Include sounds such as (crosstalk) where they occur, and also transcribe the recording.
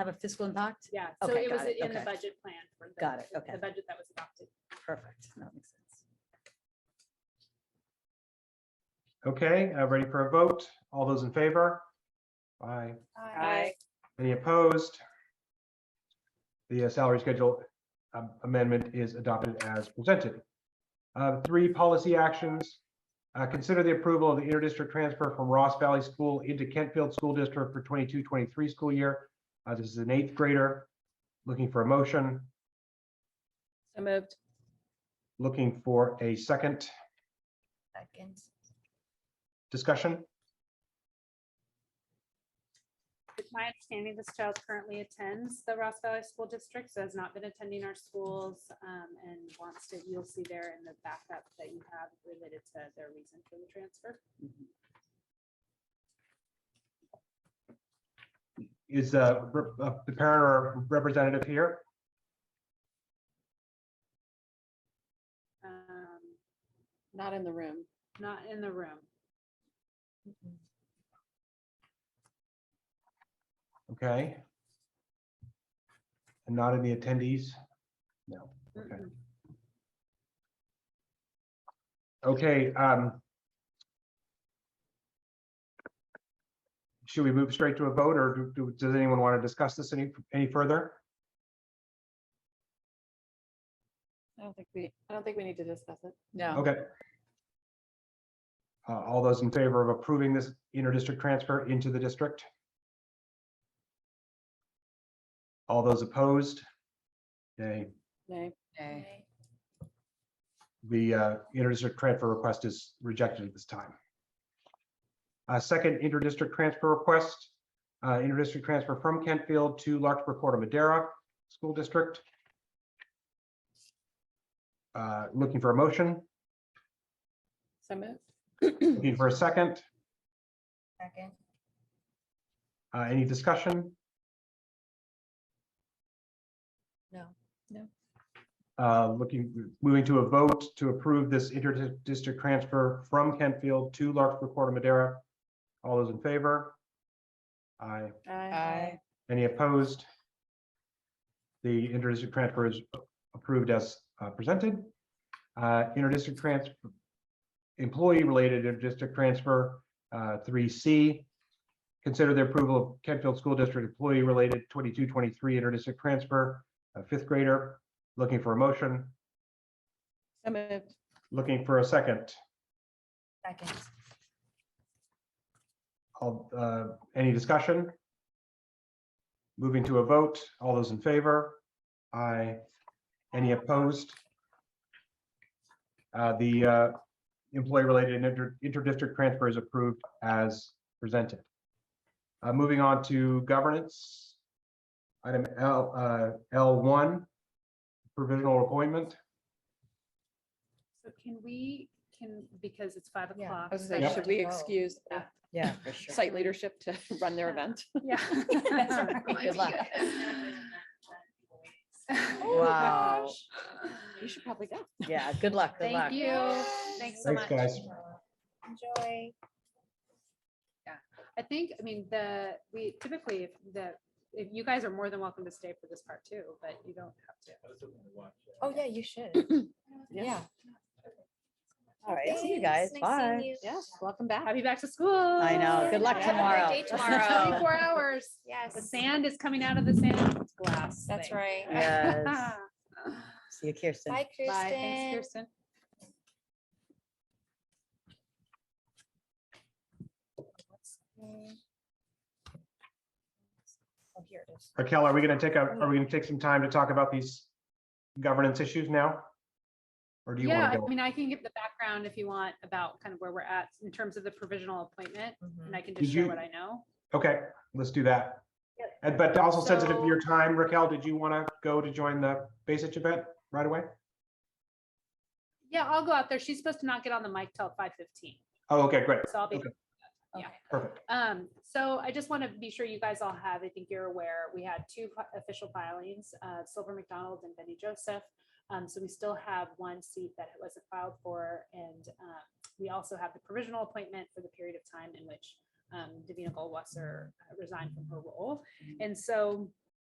have a fiscal impact? Yeah, so Okay, it was got it, in the okay. budget plan. for the- Got it, okay. The budget that was adopted. Perfect. That makes sense. Okay, uh, ready for a vote? All those in favor? Aye. Aye. Any opposed? The uh, salary schedule um, amendment is adopted as presented. Uh, Three policy actions. Uh, Consider the approval of the interdistrict transfer from Ross Valley School into Kentfield School District for 22-23 school year. Uh, This is an eighth grader looking for a motion, So moved. looking for a second Second. discussion. It's my understanding this child currently attends the Ross Valley School District, so has not been attending our schools um, and wants to, you'll see there in the backup that you have related to their reason for the transfer. Is uh, rep- uh, the parent or representative here? Um, Not in the room. Not in the room. Okay. And not in the attendees? No. Okay. Mm-mm. Okay, um. Should we move straight to a vote or do- do, does anyone want to discuss this any, any further? I don't think we, I don't think we need to discuss it. No. Okay. Uh, all those in favor of approving this interdistrict transfer into the district? All those opposed? Okay, Nay. the uh, interdistrict transfer request is rejected at this time. Uh, Second interdistrict transfer request, uh, interdistrict transfer from Kentfield to Larkspur Corder Madera School District. Uh, Looking for a motion, So moved. looking for a second, Second. Uh, any discussion? No. No. Uh, Looking, moving to a vote to approve this interdistrict transfer from Kentfield to Larkspur Corder Madera. All those in favor? Aye. Aye. Any opposed? The interdistrict transfer is approved as uh, presented. Uh, Interdistrict transfer, employee-related interdistrict transfer, uh, three C. Consider the approval of Kentfield School District employee-related 22-23 interdistrict transfer, a fifth grader, looking for a motion, So moved. looking for a second. Second. All, uh, any discussion? Moving to a vote, all those in favor? Aye. Any opposed? Uh, the, uh, employee-related inter, inter-district transfer is approved as presented. Uh, moving on to governance. Item L, uh, L one, provisional appointment. So can we, can, because it's five Yeah, o'clock. I was so gonna I say, should should- we Yep. excuse the Yeah. Yeah, for sure. site leadership to (laughs) run their event? (laughs) (laughs) Yeah. Good luck. (laughs) Oh Wow. You should probably go. (laughs) Yeah, good luck, good luck. Thank you. Thanks so Thanks, much. guys. Enjoy. I think, I mean, the, we typically, if the, if you guys are more than welcome to stay for this part too, but you don't have to. Oh, yeah, you should. Yeah. All right, see you guys. Bye. Yes, welcome back. Happy back to school. I know. Good luck Have a great tomorrow. (laughs) day tomorrow. Twenty-four hours. The Yes, sand is coming out of the sand glass. that's thing. (laughs) Yes. right. (laughs) See you, Kirsten. Bye, Bye. Thanks, Kristen. Kirsten. Mm. Oh, here it is. Raquel, Uh, are we gonna take a, are we gonna take some time to talk about these governance issues now? Or do you Yeah, want to I go? mean, I can give the background if you want about kind of where we're at in terms of the provisional appointment and Mhm. I can Did just share you- what I know. Okay, let's do that. And but also sensitive to So- your time, Raquel, did you want to go to join the Basic event right away? Yeah, I'll go out there. She's supposed to not get on the mic till five fifteen, Oh, okay, great, so I'll be Okay. perfect. Um, so I just want to be sure you guys all have, I think you're aware, we had two fi- official filings, uh, Silver McDonald and Benny Joseph. Um, so we still have one seat that it wasn't filed for, and, uh, we also have the provisional appointment for the uh, Mm-hmm. period of time in which, um, Davina Goldwasser resigned from her role. And so